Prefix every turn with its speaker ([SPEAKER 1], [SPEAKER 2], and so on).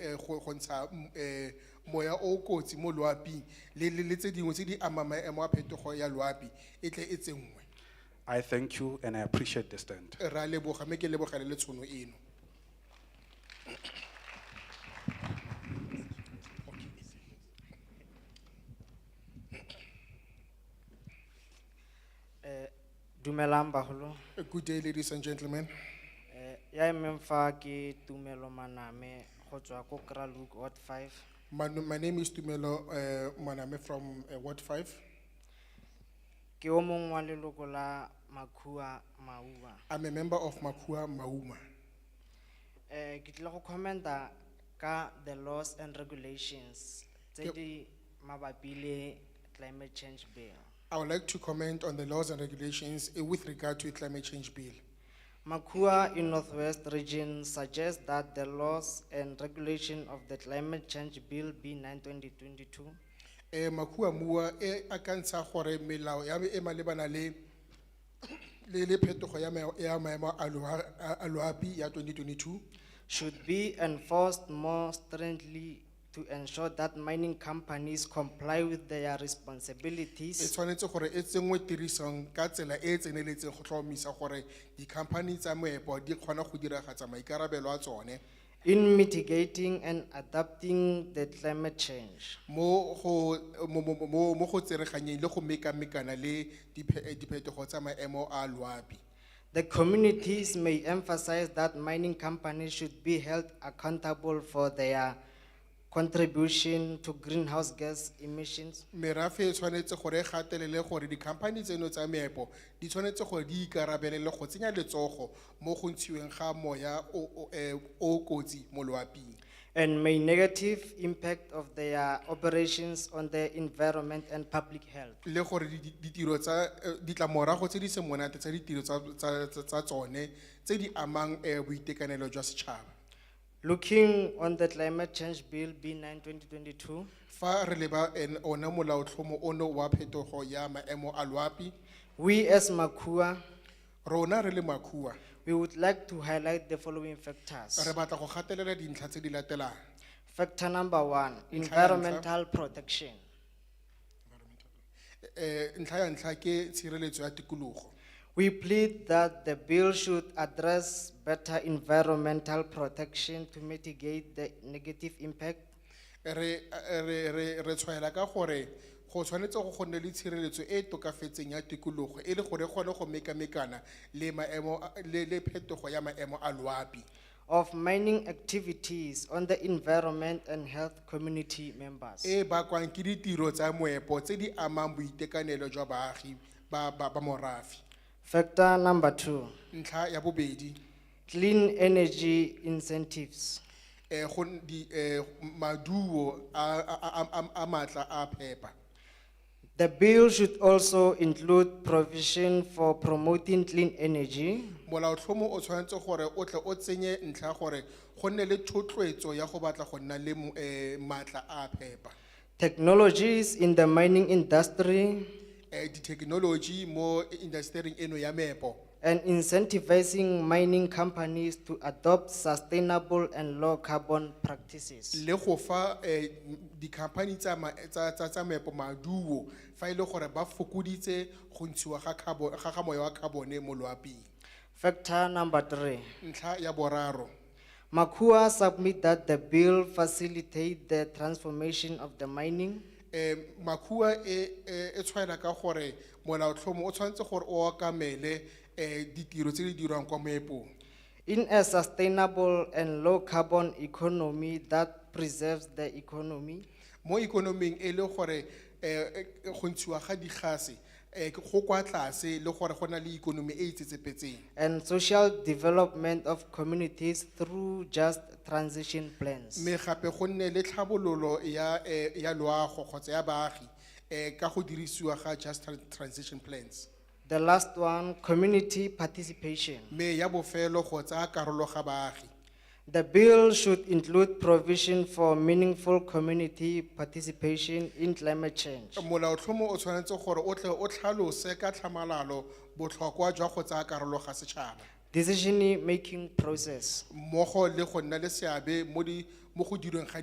[SPEAKER 1] eh, go go ntsha mm, eh, moya o o kotsi mo loaping le le le tse dingwe tse di amang maemo a phetogo ya loapi e tle e tsenngwe
[SPEAKER 2] I thank you and I appreciate the stand.
[SPEAKER 1] ra leboga mme ke lebogele le tshono eno
[SPEAKER 3] Eh, Dumelang baholo,
[SPEAKER 1] good day ladies and gentlemen
[SPEAKER 3] eh, ya emeng fa ke tumelo maname, go tswa ko Kraluk Ward Five.
[SPEAKER 1] my, my name is Tumelo eh, Maname from eh, Ward Five
[SPEAKER 3] Ke o mong wa leloko la Makua Maua.
[SPEAKER 1] I'm a member of Makua Mauma
[SPEAKER 3] Eh, ke tlile go commenta ka the laws and regulations tse
[SPEAKER 1] Ke-
[SPEAKER 3] di mabapi le climate change bill.
[SPEAKER 1] I would like to comment on the laws and regulations eh, with regard to a climate change bill
[SPEAKER 3] Makua in Northwest Region suggests that the laws and regulation of the climate change bill B nine twenty twenty-two
[SPEAKER 1] Eh, makua mua, eh, akansa hori melao, ya, eh, malebana le, le, le phetogo ya ma, ya maemo a loa, a loapi ya twenty twenty-two.
[SPEAKER 3] should be enforced more stringently to ensure that mining companies comply with their
[SPEAKER 1] E
[SPEAKER 3] responsibilities
[SPEAKER 1] tshwanetse gore e tsenngwe tirisong ka tsela e e tseneletseng go tlhomamisa gore di-company tsa moepo di kgona go diragatsa maikarabelo a tsone
[SPEAKER 3] in mitigating and adapting the climate change.
[SPEAKER 1] mo go, mo, mo, mo, mo go tsereganyeng le go mekamekana le diphe- eh, diphetogo tsa maemo a loapi.
[SPEAKER 3] The communities may emphasize that mining companies should be held accountable for their contribution to greenhouse gas emissions.
[SPEAKER 1] merafe e tshwanetse gore e gatelele gore di-company tseno tsa meepo di tshwanetse gore di ikarabelele go tsenya letsogo mo go ntshiweng ga moya o- o eh, o o kotsi mo loaping
[SPEAKER 3] And may negative impact of their operations on the environment and public health.
[SPEAKER 1] le gore di- di- ditiro tsa eh, ditlamorago tse di se monate tsa ditiro tsa- tsa tsa- tsa tsone tse di amang eh, boitekanelo jwa setšhaba
[SPEAKER 3] Looking on the climate change bill B 9 2022
[SPEAKER 1] fa re leba en- ona molaotlhomo ono wa phetogo ya maemo a loapi
[SPEAKER 3] we as Makua,
[SPEAKER 1] rona re le makua
[SPEAKER 3] we would like to highlight the following
[SPEAKER 1] re
[SPEAKER 3] factors.
[SPEAKER 1] batla go gatelela dintlha tse di latelang
[SPEAKER 3] Factor number one, environmental protection.
[SPEAKER 1] Eh, ntlha ya ntlha ke tshireletso ya tikologo
[SPEAKER 3] We plead that the bill should address better environmental protection to mitigate the negative impact.
[SPEAKER 1] re re re re tshwaela ka gore go tshwanetse go go nne le tshireletso e e tokafetseng ya tikologo e le gore e kgone go mekamekana le maemo a- le le phetogo ya maemo a loapi
[SPEAKER 3] Of mining activities on the environment and health community members.
[SPEAKER 1] e bakwang ke ditiro tsa moepo tse di amang boitekanelo jwa baagi ba ba ba morafe
[SPEAKER 3] Factor number two,
[SPEAKER 1] ntlha ya bobedi
[SPEAKER 3] clean energy incentives.
[SPEAKER 1] eh go n- di eh maduo a a a- a- a matla a phepa
[SPEAKER 3] The bill should also include provision for promoting clean energy,
[SPEAKER 1] molaotlhomo o tshwanetse gore o tle o tsenye ntlha ya gore go nne le thotloetso ya go batla go nna le mo- eh, maatla a phepa
[SPEAKER 3] technologies in the mining industry,
[SPEAKER 1] eh di-technology mo industering eno ya meepo
[SPEAKER 3] and incentivizing mining companies to adopt sustainable and low-carbon practices.
[SPEAKER 1] le go fa eh m- di-company tsa ma- tsa- tsa- tsa meepo maduo fa e le gore ba fokoditse go ntshiwa ga carbo- ga ga moya wa carbone mo loaping
[SPEAKER 3] Factor number three,
[SPEAKER 1] ntlha ya boraro
[SPEAKER 3] Makua submit that the bill facilitate the transformation of the mining
[SPEAKER 1] eh makua e e e tshwaela ka gore molaotlhomo o tshwanetse gore o okamele eh ditiro tse di dirwang kwa moepong
[SPEAKER 3] in a sustainable and low-carbon economy that preserves the economy.
[SPEAKER 1] mo ikonoming e le gore eh eh, go ntshiwa ga digase eh ke- go kwa tlase le gore go na le ikonomi e itsetsepetseng
[SPEAKER 3] and social development of communities through just transition plans.
[SPEAKER 1] mme gape go nne le tlhabololo ya eh, ya loago kgotsa ya baagi eh ka go dirisiwa ga just Tran- transition plans
[SPEAKER 3] The last one, community participation.
[SPEAKER 1] mme ya bofelo go tsaya karolo ga baagi
[SPEAKER 3] The bill should include provision for meaningful community participation in climate change.
[SPEAKER 1] molaotlhomo o tshwanetse gore o tle o tlhalose ka tlhamalalo botlhokwa jwa go tsaya karolo ga setšhaba
[SPEAKER 3] Decision-making process.
[SPEAKER 1] mmogo le go nna le seabe mo di- mo mo go dirweng ga